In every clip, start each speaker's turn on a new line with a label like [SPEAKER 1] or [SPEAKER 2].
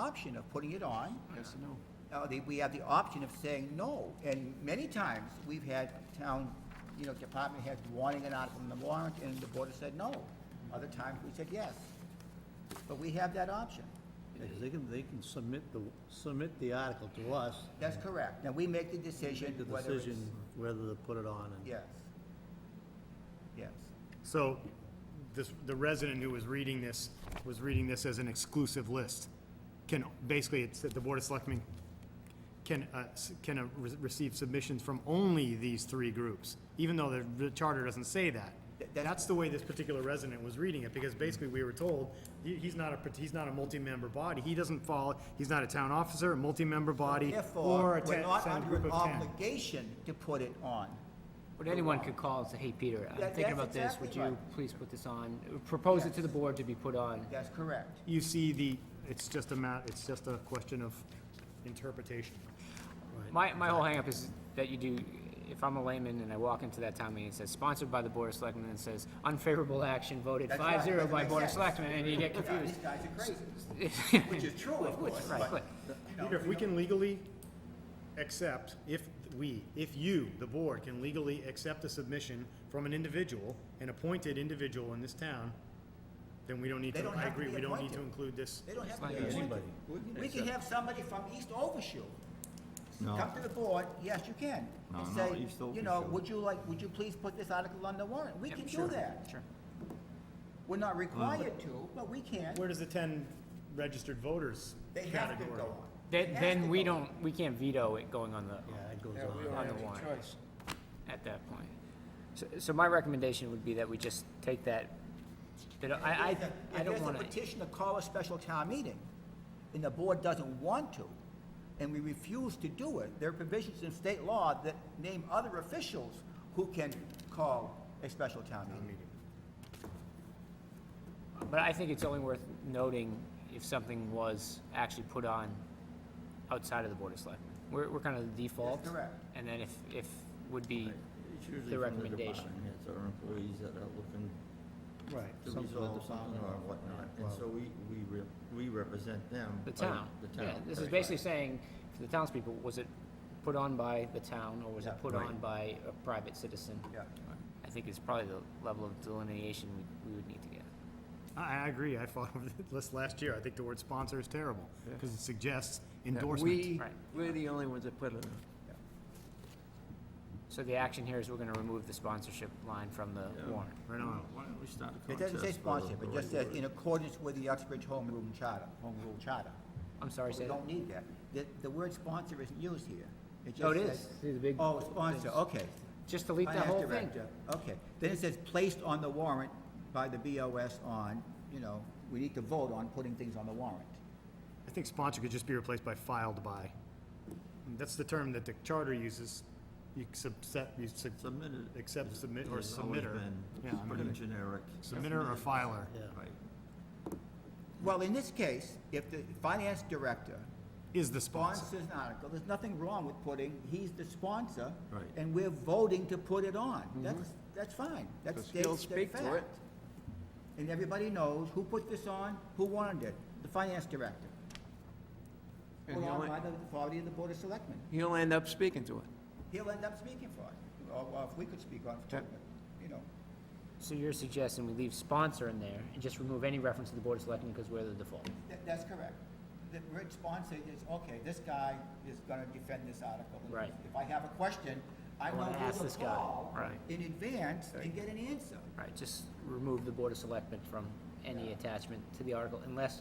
[SPEAKER 1] option of putting it on. Yes or no? we have the option of saying no, and many times, we've had town, you know, department heads wanting an article on the warrant, and the board has said no. Other times, we said yes, but we have that option.
[SPEAKER 2] Because they can, they can submit the, submit the article to us,
[SPEAKER 1] That's correct, now we make the decision
[SPEAKER 2] make the
[SPEAKER 1] whether it's.
[SPEAKER 2] decision whether to put it on and.
[SPEAKER 1] Yes. Yes,
[SPEAKER 3] So this, the resident who was reading this, was reading this as an exclusive list. Can, basically, it's that the Board of Selectmen can, uh, s- can uh, re- receive submissions from only these three groups, even though the- the charter doesn't say that.
[SPEAKER 1] Th- that's-
[SPEAKER 3] That's the way this particular resident was reading it, because basically we were told, he- he's not a, part- he's not a multi-member body. He doesn't fall, he's not a town officer, a multi-member body, or
[SPEAKER 1] therefore,
[SPEAKER 3] a
[SPEAKER 1] we're
[SPEAKER 3] ten-
[SPEAKER 1] not
[SPEAKER 3] town
[SPEAKER 1] under
[SPEAKER 3] group
[SPEAKER 1] an
[SPEAKER 3] of ten.
[SPEAKER 1] obligation to put it on.
[SPEAKER 4] But anyone could call and say, hey, Peter, I'm
[SPEAKER 1] That- that's
[SPEAKER 4] thinking about this,
[SPEAKER 1] exactly
[SPEAKER 4] would you
[SPEAKER 1] right.
[SPEAKER 4] please put this on, propose it to the board to be put on?
[SPEAKER 1] That's correct.
[SPEAKER 3] You see the, it's just a ma, it's just a question of interpretation.
[SPEAKER 4] My, my whole hangup is that you do, if I'm a layman and I walk into that town meeting, it says sponsored by the Board of Selectmen, and it says unfavorable action voted
[SPEAKER 1] That's right,
[SPEAKER 4] five zero
[SPEAKER 1] doesn't
[SPEAKER 4] by
[SPEAKER 1] make
[SPEAKER 4] Board of
[SPEAKER 1] sense.
[SPEAKER 4] Selectmen, and you get
[SPEAKER 1] Yeah, these
[SPEAKER 4] confused.
[SPEAKER 1] guys are crazy, which is true, of course,
[SPEAKER 4] Right,
[SPEAKER 1] but.
[SPEAKER 4] but
[SPEAKER 1] you know,
[SPEAKER 3] Peter, if we can legally accept, if we, if you, the board, can legally accept a submission from an individual, an appointed individual in this town, then we don't need
[SPEAKER 1] They
[SPEAKER 3] to,
[SPEAKER 1] don't
[SPEAKER 3] I
[SPEAKER 1] have to
[SPEAKER 3] agree,
[SPEAKER 1] be
[SPEAKER 3] we don't need to
[SPEAKER 1] appointed.
[SPEAKER 3] include this.
[SPEAKER 1] They don't have to
[SPEAKER 4] Like
[SPEAKER 1] be appointed.
[SPEAKER 2] anybody.
[SPEAKER 1] We can have somebody from East Overshoe
[SPEAKER 5] No.
[SPEAKER 1] come to the board, yes, you can,
[SPEAKER 5] No,
[SPEAKER 1] and
[SPEAKER 5] no,
[SPEAKER 1] say,
[SPEAKER 5] East
[SPEAKER 1] you know,
[SPEAKER 5] Overshoe.
[SPEAKER 1] would you like, would you please put this article on the warrant? We
[SPEAKER 4] Yep,
[SPEAKER 1] can do
[SPEAKER 4] sure,
[SPEAKER 1] that.
[SPEAKER 4] Sure.
[SPEAKER 1] We're not required to, but we can.
[SPEAKER 3] Where does the ten registered voters
[SPEAKER 1] They have to
[SPEAKER 3] category?
[SPEAKER 1] go on. It
[SPEAKER 4] Then,
[SPEAKER 1] has to
[SPEAKER 4] then we
[SPEAKER 1] go on.
[SPEAKER 4] don't, we can't veto it going on the,
[SPEAKER 2] Yeah, it goes
[SPEAKER 6] Yeah, we
[SPEAKER 2] on.
[SPEAKER 6] don't
[SPEAKER 4] on
[SPEAKER 6] have
[SPEAKER 4] the
[SPEAKER 6] any
[SPEAKER 4] warrant.
[SPEAKER 6] choice.
[SPEAKER 4] at that point. So, so my recommendation would be that we just take that, that I,
[SPEAKER 1] If
[SPEAKER 4] I, I don't
[SPEAKER 1] If there's
[SPEAKER 4] wanna.
[SPEAKER 1] a petition to call a special town meeting, and the board doesn't want to, and we refuse to do it, there are provisions in state law that name other officials who can call a special town meeting.
[SPEAKER 4] But I think it's only worth noting if something was actually put on outside of the Board of Selectmen. We're, we're kind of the default.
[SPEAKER 1] correct.
[SPEAKER 4] And then if, if would be,
[SPEAKER 5] It's
[SPEAKER 4] The
[SPEAKER 5] usually from the
[SPEAKER 4] recommendation.
[SPEAKER 5] department heads or employees that are looking
[SPEAKER 2] Right.
[SPEAKER 5] to resolve something or whatnot, and so we, we, re- we represent them.
[SPEAKER 4] the
[SPEAKER 5] by
[SPEAKER 4] town.
[SPEAKER 5] Oh, The
[SPEAKER 4] Yeah,
[SPEAKER 5] town.
[SPEAKER 4] This is
[SPEAKER 5] right.
[SPEAKER 4] basically saying, for the townspeople, was it put on by the town or was
[SPEAKER 1] Yeah,
[SPEAKER 4] it put
[SPEAKER 5] right.
[SPEAKER 4] on by a private citizen?
[SPEAKER 1] Yeah.
[SPEAKER 4] I think it's probably the level of delineation we, we would need to get.
[SPEAKER 3] I, I agree, I fought over this last year, I think the word sponsor is terrible, because it suggests endorsement.
[SPEAKER 6] We,
[SPEAKER 4] Right.
[SPEAKER 6] we're the only ones that put it on.
[SPEAKER 4] So the action here is we're gonna remove the sponsorship line from the warrant.
[SPEAKER 3] Right on.
[SPEAKER 5] Why don't we start a
[SPEAKER 1] It doesn't say
[SPEAKER 5] contest for the-
[SPEAKER 1] sponsorship,
[SPEAKER 5] the
[SPEAKER 1] it just
[SPEAKER 5] right
[SPEAKER 1] says in accordance with the Uxbridge Home Rule Charter, Home Rule Charter.
[SPEAKER 4] I'm sorry,
[SPEAKER 1] We
[SPEAKER 4] say that.
[SPEAKER 1] don't need that. The, the word sponsor isn't used here. It
[SPEAKER 4] Oh, it
[SPEAKER 1] just
[SPEAKER 4] is.
[SPEAKER 1] says-
[SPEAKER 4] See the big-
[SPEAKER 1] Oh, sponsor, okay.
[SPEAKER 4] Just delete that
[SPEAKER 1] Finance
[SPEAKER 4] whole thing.
[SPEAKER 1] director, Okay. Then it says placed on the warrant by the BOS on, you know, we need to vote on putting things on the warrant.
[SPEAKER 3] I think sponsor could just be replaced by filed by. That's the term that the charter uses. You subset, you sub.
[SPEAKER 5] Submitted.
[SPEAKER 3] Accept, submit, or
[SPEAKER 5] It's always
[SPEAKER 3] submitter.
[SPEAKER 5] been
[SPEAKER 3] Yeah, I
[SPEAKER 5] Pretty
[SPEAKER 3] mean,
[SPEAKER 5] generic.
[SPEAKER 3] Submitter or filer.
[SPEAKER 2] Yeah.
[SPEAKER 5] Right.
[SPEAKER 1] Well, in this case, if the finance director
[SPEAKER 3] Is the sponsor.
[SPEAKER 1] sponsors an article, there's nothing wrong with putting, he's the sponsor.
[SPEAKER 5] Right.
[SPEAKER 1] And we're voting to put it on. That's, that's fine. That's
[SPEAKER 6] Because he'll
[SPEAKER 1] states that
[SPEAKER 6] Mm-hmm. speak to
[SPEAKER 1] fact.
[SPEAKER 6] it.
[SPEAKER 1] And everybody knows who put this on, who wanted it, the finance director.
[SPEAKER 6] And
[SPEAKER 1] Put
[SPEAKER 6] he'll
[SPEAKER 1] on
[SPEAKER 6] en-
[SPEAKER 1] by the authority of the board of selectmen.
[SPEAKER 6] He'll end up speaking to it.
[SPEAKER 1] He'll end up speaking for it, or, or if we could speak on it, too,
[SPEAKER 6] Okay.
[SPEAKER 1] but, you know.
[SPEAKER 4] So you're suggesting we leave sponsor in there and just remove any reference to the Board of Selectmen because we're the default?
[SPEAKER 1] That, that's correct. The word sponsor is, okay, this guy is gonna defend this article. and
[SPEAKER 4] Right.
[SPEAKER 1] If I have a question, I
[SPEAKER 4] I
[SPEAKER 1] know
[SPEAKER 4] wanna ask
[SPEAKER 1] who
[SPEAKER 4] this
[SPEAKER 1] to
[SPEAKER 4] guy.
[SPEAKER 1] call
[SPEAKER 4] Right.
[SPEAKER 1] in advance and get an answer.
[SPEAKER 4] Right, just remove the Board of Selectmen from any attachment to the article unless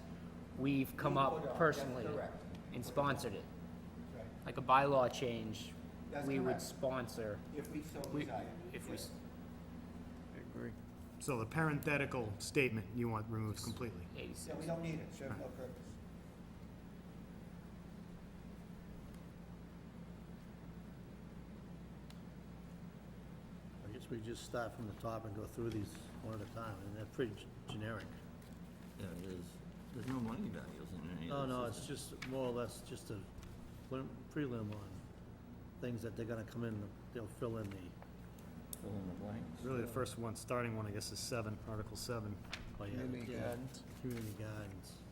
[SPEAKER 4] we've come
[SPEAKER 1] We put up,
[SPEAKER 4] up
[SPEAKER 1] that's
[SPEAKER 4] personally
[SPEAKER 1] correct.
[SPEAKER 4] and sponsored it. Like a bylaw change,
[SPEAKER 1] That's
[SPEAKER 4] we would
[SPEAKER 1] correct.
[SPEAKER 4] sponsor,
[SPEAKER 1] If we so
[SPEAKER 4] we,
[SPEAKER 1] desire.
[SPEAKER 4] if we, s-
[SPEAKER 6] Agree.
[SPEAKER 3] So the parenthetical statement you want removed completely.
[SPEAKER 4] eighty-six.
[SPEAKER 1] So we don't need it, serves no purpose.
[SPEAKER 2] I guess we just start from the top and go through these one at a time, and they're pretty g- generic.
[SPEAKER 5] Yeah, it is. There's no money values in
[SPEAKER 1] Oh,
[SPEAKER 2] No,
[SPEAKER 5] any of this.
[SPEAKER 2] Oh, no,
[SPEAKER 5] is
[SPEAKER 2] it's just more or less just a prelim- prelim on things that they're gonna come in, they'll fill in the,
[SPEAKER 5] it? Fill in the blanks.
[SPEAKER 3] Really, the first one, starting one, I guess, is seven, Article seven.
[SPEAKER 2] oh yeah.
[SPEAKER 6] Community
[SPEAKER 2] yeah,
[SPEAKER 6] gardens.
[SPEAKER 2] Community gardens.